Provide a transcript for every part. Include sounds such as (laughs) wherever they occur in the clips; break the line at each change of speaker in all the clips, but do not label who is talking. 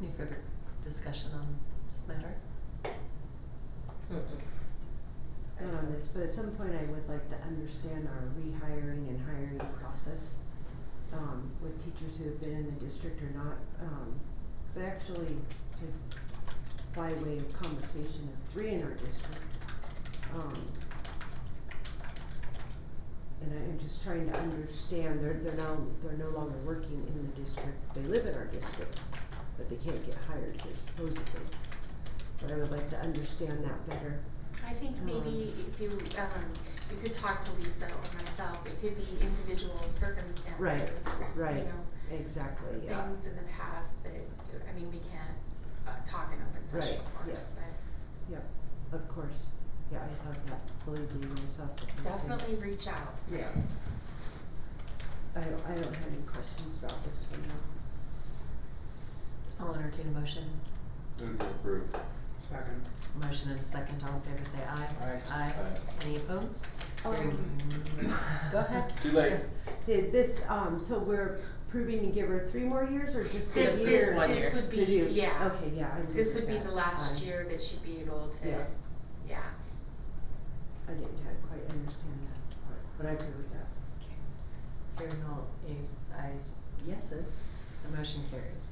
Any further discussion on this matter?
not on this, but at some point I would like to understand our rehiring and hiring process, um, with teachers who have been in the district or not, um, 'cause I actually did, by way of conversation of three in our district, um, and I am just trying to understand, they're, they're now, they're no longer working in the district, they live in our district, but they can't get hired here supposedly. But I would like to understand that better,
I think maybe if you, um, you could talk to Lisa or myself, it could be individual circumstances.
Right,
You
right.
know,
exactly, yeah.
things in the past that, I mean, we can't, uh, talk in open
Right,
session, of course,
yeah.
but
Of course, yeah, I thought that, believe me myself. the first thing.
definitely reach out.
Yeah. I don't, I don't have any questions about this one now.
I'll entertain a motion.
Move to approve.
Second.
Motion and a second, all in favor say aye.
Aye.
Aye.
Any opposed?
Oh,
Very
Um,
good. Go ahead.
Too late.
Did this, um, so we're proving to give her three more years or just the year?
This, this,
one
this
year.
would
Did you-
be, yeah,
Okay, yeah, I didn't
this
get
would be
that.
the last
I-
year that she'd be able to, yeah.
Yeah. I didn't have quite understand that part, but I agree with that.
Hearing all ayes, ayes, yeses, the motion carries.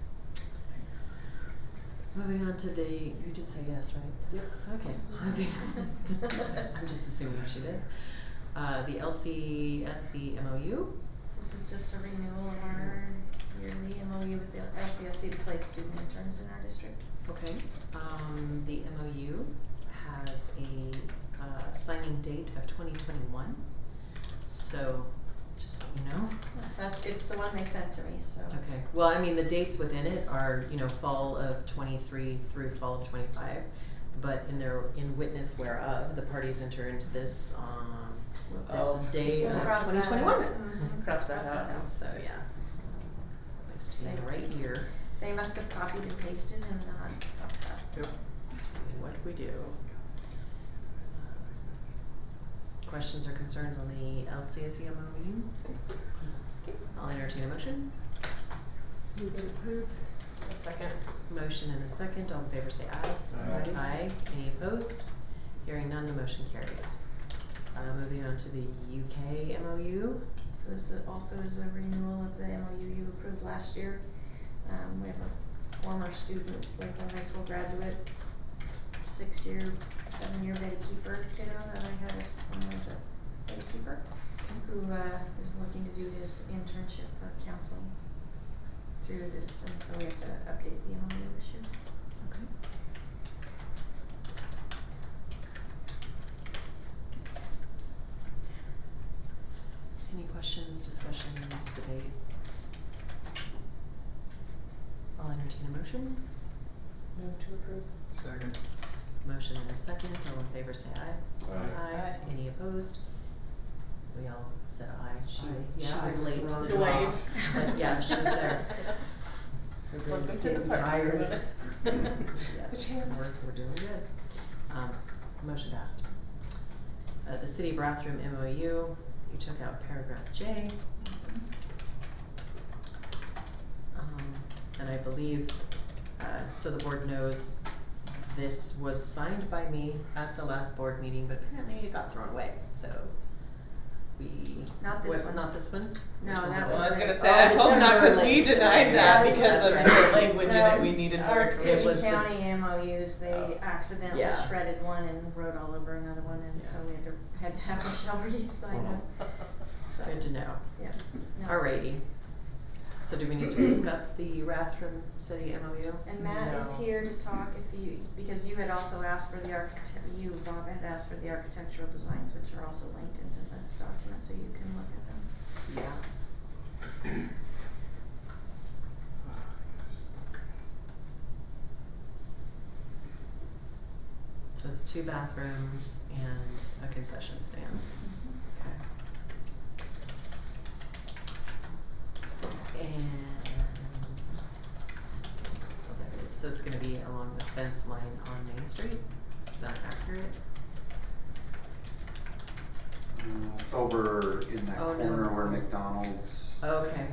Moving on to the, you did say yes, right?
Yep.
Okay. I think- (laughs) I'm just assuming she did. Uh, the LCSC MOU,
This is just a renewal of our E yearly MOU with the LCSC to place student interns in our district.
okay, um, the MOU has a, uh, signing date of twenty twenty-one. So, just so you know,
That, it's the one they sent to me, so.
Okay, well, I mean, the dates within it are, you know, fall of twenty-three through fall of twenty-five. But in their, in witness whereof, the parties enter into this, um, this
Oh.
day
We'll
of
cross that
twenty
out.
twenty-one. Mm-hmm.
Mhm.
Cross that out.
So, yeah, it's, at least in the right year,
They must have copied and pasted and not fucked up.
Yep.
That's what we do. Uh, Questions or concerns on the LCSU MOU? Okay, I'll entertain a motion.
Move and approve?
second. Motion and a second, all in favor say aye.
Aye.
Aye, any opposed? Hearing none, the motion carries. Uh, moving on to the UK MOU,
So this is- also is a renewal of the MOU you approved last year. Um, we have a former student, Lakeland High School graduate, six-year, seven-year gatekeeper kiddo that I had as, when I was a gatekeeper, who, uh, is looking to do his internship for counseling through this, and so we have to update the MOU this year.
okay. Any questions, discussions, debate? I'll entertain a motion.
Move to approve.
Second.
Motion and a second, all in favor say aye.
Aye.
Aye, any opposed? We all said aye, she,
Aye.
she
Yeah, I
was
was
late to
wrong.
the draw, but (laughs) yeah, she was
(laughs)
there.
Welcome
Everybody's
to the
getting
party,
tired.
(laughs) isn't it?
Yes, we're, we're doing good. Um, motion passed. Uh, the city of Bathroom MOU, you took out paragraph J. Um, and I believe, uh, so the board knows, this was signed by me at the last board meeting, but apparently it got thrown away, so we.
Not this
what-
one.
Not this one?
No,
Which one was it?
that was Oh, Well, I was gonna
say, I hope not, 'cause we
denied that because of the
language
Um, Our
It was
Cushing
the-
County MOUs,
Oh.
they accidentally
Yeah.
shredded one and wrote all over another one, and so
Yeah.
we had to, had
(laughs)
to have Michelle re-sign them. So,
Good to know.
yeah, no.
Alrighty. So do we need to discuss the Rathdrum City MOU?
And Matt is
No.
here to talk if you, because you had also asked for the architect, you, Bob, had asked for the architectural designs, which are also linked into this document, so you can look at them.
Yeah. So it's two bathrooms and a concession stand. Okay. And well, there it is. so it's gonna be along the fence line on Main Street. Is that accurate?
Mm, It's over in that
Oh, no.
corner where McDonald's.
Okay.